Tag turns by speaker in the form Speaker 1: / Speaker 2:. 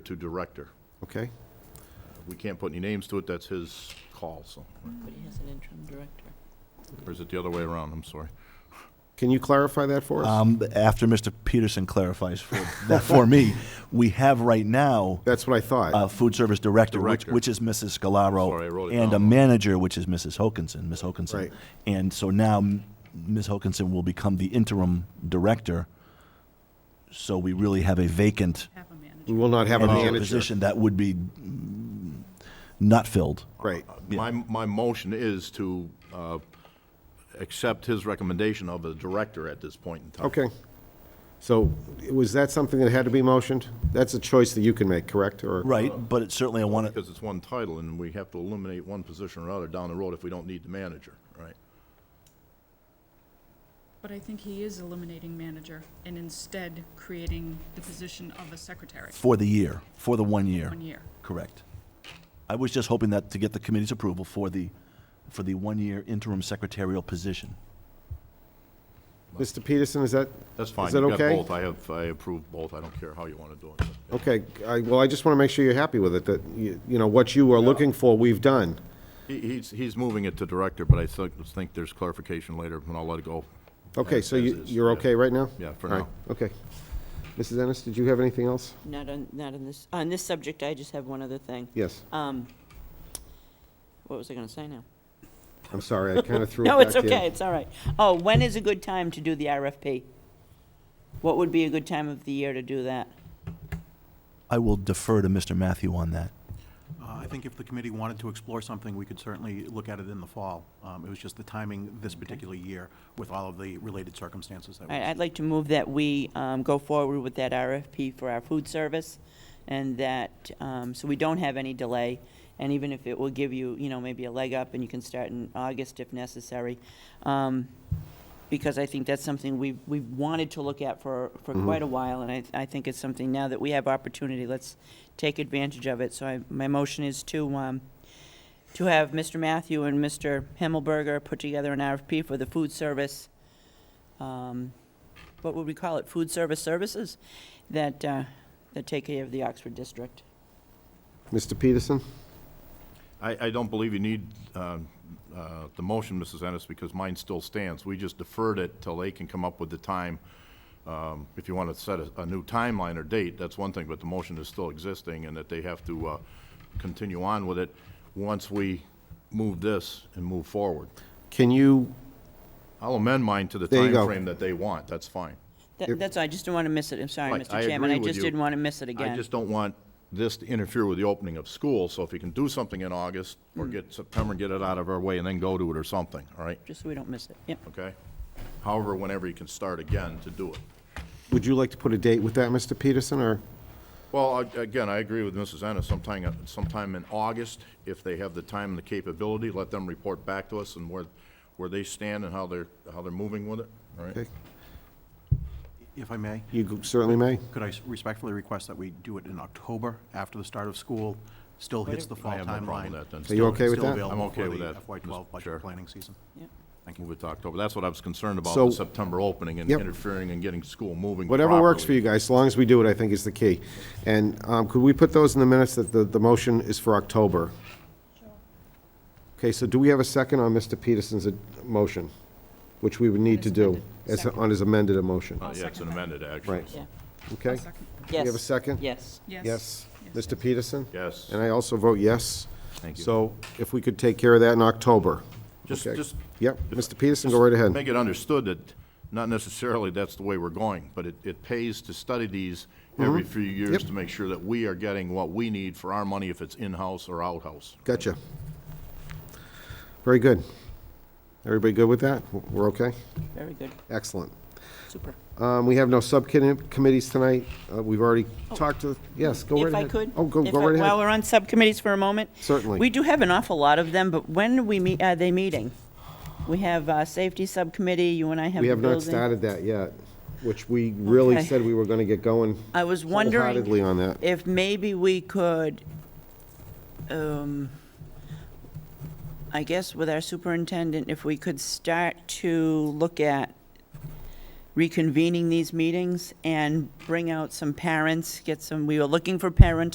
Speaker 1: to director.
Speaker 2: Okay?
Speaker 1: We can't put any names to it, that's his call, so,
Speaker 3: But he has an interim director.
Speaker 1: or is it the other way around, I'm sorry.
Speaker 2: Can you clarify that for us?
Speaker 4: Um, after Mr. Peterson clarifies for, that for me, we have right now
Speaker 2: That's what I
Speaker 4: a
Speaker 2: thought.
Speaker 4: food service director, which,
Speaker 1: Director.
Speaker 4: which is Mrs. Scalaro,
Speaker 1: Sorry, I wrote it
Speaker 4: and a
Speaker 1: down.
Speaker 4: manager, which is Mrs. Hokinson, Ms. Hokinson.
Speaker 2: Right.
Speaker 4: And so now m- Ms. Hokinson will become the interim director. So we really have a vacant
Speaker 5: Have a manager.
Speaker 2: We will not have uh, a
Speaker 4: manager
Speaker 2: manager.
Speaker 4: position that would be mm, not filled.
Speaker 2: Right.
Speaker 1: My, my motion is to uh, accept his recommendation of a director at this point in time.
Speaker 2: Okay. So was that something that had to be motioned? That's a choice that you can make, correct? Or
Speaker 4: Right, but it certainly I want to,
Speaker 1: Because it's one title, and we have to eliminate one position or another down the road if we don't need the manager, right?
Speaker 5: But I think he is eliminating manager and instead creating the position of a secretary,
Speaker 4: for the year, for the one year.
Speaker 5: one year.
Speaker 4: Correct. I was just hoping that, to get the committee's approval for the, for the one-year interim secretarial position.
Speaker 2: Mr. Peterson, is that,
Speaker 1: That's fine.
Speaker 2: Is that
Speaker 1: You've got
Speaker 2: okay?
Speaker 1: both. I have, I approve both, I don't care how you want to do it.
Speaker 2: okay, I, well, I just want to make sure you're happy with it, that, you, you know, what you are looking for, we've done.
Speaker 1: He- He's, he's moving it to director, but I think, think there's clarification later, and I'll let it go.
Speaker 2: Okay, so
Speaker 1: As
Speaker 2: you,
Speaker 1: is,
Speaker 2: you're
Speaker 1: yeah.
Speaker 2: okay right now?
Speaker 1: Yeah, for
Speaker 2: All right, Okay. Mrs. Ennis, did you have anything else?
Speaker 3: Not on, not on this, on this subject, I just have one other thing.
Speaker 2: Yes,
Speaker 3: Um, what was I gonna say now?
Speaker 2: I'm sorry, I kind of threw it back
Speaker 3: No, it's
Speaker 2: to you.
Speaker 3: okay, it's all right. Oh, when is a good time to do the RFP? What would be a good time of the year to do that?
Speaker 4: I will defer to Mr. Matthew on that.
Speaker 6: Uh, I think if the committee wanted to explore something, we could certainly look at it in the fall. Um, It was just the timing this particular year with all of the related circumstances
Speaker 3: All
Speaker 6: that
Speaker 3: right,
Speaker 6: was.
Speaker 3: I'd like to move that we um, go forward with that RFP for our food service, and that, um, so we don't have any delay, and even if it will give you, you know, maybe a leg up, and you can start in August if necessary, um, because I think that's something we, we've wanted to look at for, for quite a while, and I, I think it's something now that we have opportunity, let's take advantage of it. So I, my motion is to, um, to have Mr. Matthew and Mr. Himmelberger put together an RFP for the food service, um, what would we call it, food service services that, uh, that take care of the Oxford district.
Speaker 2: Mr. Peterson?
Speaker 1: I, I don't believe you need uh, uh, the motion, Mrs. Ennis, because mine still stands. We just deferred it till they can come up with the time. Um, If you want to set a, a new timeline or date, that's one thing, but the motion is still existing and that they have to uh, continue on with it once we move this and move forward.
Speaker 2: Can you,
Speaker 1: I'll amend mine to the
Speaker 2: There you go.
Speaker 1: timeframe that they want, that's fine.
Speaker 3: That- That's, all. I just didn't want to miss it, I'm sorry,
Speaker 1: Right, I
Speaker 3: Mr. Chairman,
Speaker 1: agree
Speaker 3: I
Speaker 1: with
Speaker 3: just
Speaker 1: you.
Speaker 3: didn't want to miss it
Speaker 1: I
Speaker 3: again.
Speaker 1: just don't want this to interfere with the opening of school, so if you can do something in August or get September, get it out of our way and then go to it or something, all right?
Speaker 3: Just so we don't miss it, yep.
Speaker 1: okay? However, whenever you can start again to do it.
Speaker 2: would you like to put a date with that, Mr. Peterson, or?
Speaker 1: Well, I- again, I agree with Mrs. Ennis, sometime, sometime in August, if they have the time and the capability, let them report back to us and where, where they stand and how they're, how they're moving with it, all right?
Speaker 2: Okay.
Speaker 6: If I may,
Speaker 2: You certainly may.
Speaker 6: could I s- respectfully request that we do it in October after the start of school? Still hits the fall
Speaker 1: I
Speaker 6: timeline.
Speaker 1: have no problem with that, then.
Speaker 2: Are you okay with that?
Speaker 6: Still
Speaker 1: I'm
Speaker 6: available
Speaker 1: okay
Speaker 6: for
Speaker 1: with
Speaker 6: the
Speaker 1: that,
Speaker 6: FY
Speaker 1: Mr.
Speaker 6: twelve
Speaker 1: Chair.
Speaker 6: budget planning season.
Speaker 1: Move it to October. That's what I was concerned about,
Speaker 2: So-
Speaker 1: the September opening and
Speaker 2: Yep.
Speaker 1: interfering and getting school moving
Speaker 2: Whatever works for
Speaker 1: properly.
Speaker 2: you guys, as long as we do it, I think is the key. And um, could we put those in the minutes that the, the motion is for October? Okay, so do we have a second on Mr. Peterson's uh, motion, which we would need to do, as, on his amended emotion?
Speaker 1: Uh, Yeah, it's an amended, actually.
Speaker 2: Right.
Speaker 3: Yeah.
Speaker 2: Okay?
Speaker 6: Second.
Speaker 2: Do you have a
Speaker 3: Yes,
Speaker 2: second?
Speaker 3: yes.
Speaker 2: Yes. Mr. Peterson?
Speaker 1: Yes.
Speaker 2: And I also vote yes.
Speaker 1: Thank you.
Speaker 2: So if we could take care of that in October.
Speaker 1: Just,
Speaker 2: Okay.
Speaker 1: just
Speaker 2: Yep, Mr. Peterson, go right ahead.
Speaker 1: Make it understood that not necessarily that's the way we're going, but it, it pays to study these every few years
Speaker 2: Mm-hmm. Yep.
Speaker 1: to make sure that we are getting what we need for our money, if it's in-house or out-house.
Speaker 2: Gotcha. Very good. Everybody good with that? We're okay?
Speaker 3: Very good,
Speaker 2: Excellent.
Speaker 3: super.
Speaker 2: Um, We have no subcommittees tonight. Uh, We've already talked to, yes, go right
Speaker 3: Oh. If
Speaker 2: ahead.
Speaker 3: I could?
Speaker 2: Oh, go,
Speaker 3: if
Speaker 2: go
Speaker 3: I-
Speaker 2: right
Speaker 3: While
Speaker 2: ahead.
Speaker 3: we're on subcommittees for a moment?
Speaker 2: Certainly.
Speaker 3: We do have an awful lot of them, but when do we meet, are they meeting? We have, uh, safety subcommittee, you and I have
Speaker 2: We
Speaker 3: the
Speaker 2: have not
Speaker 3: building.
Speaker 2: started that yet, which we really
Speaker 3: Okay.
Speaker 2: said we were going to get going
Speaker 3: I was wondering.
Speaker 2: wholeheartedly on that.
Speaker 3: if maybe we could, um, I guess with our superintendent, if we could start to look at reconvening these meetings and bring out some parents, get some, we were looking for parent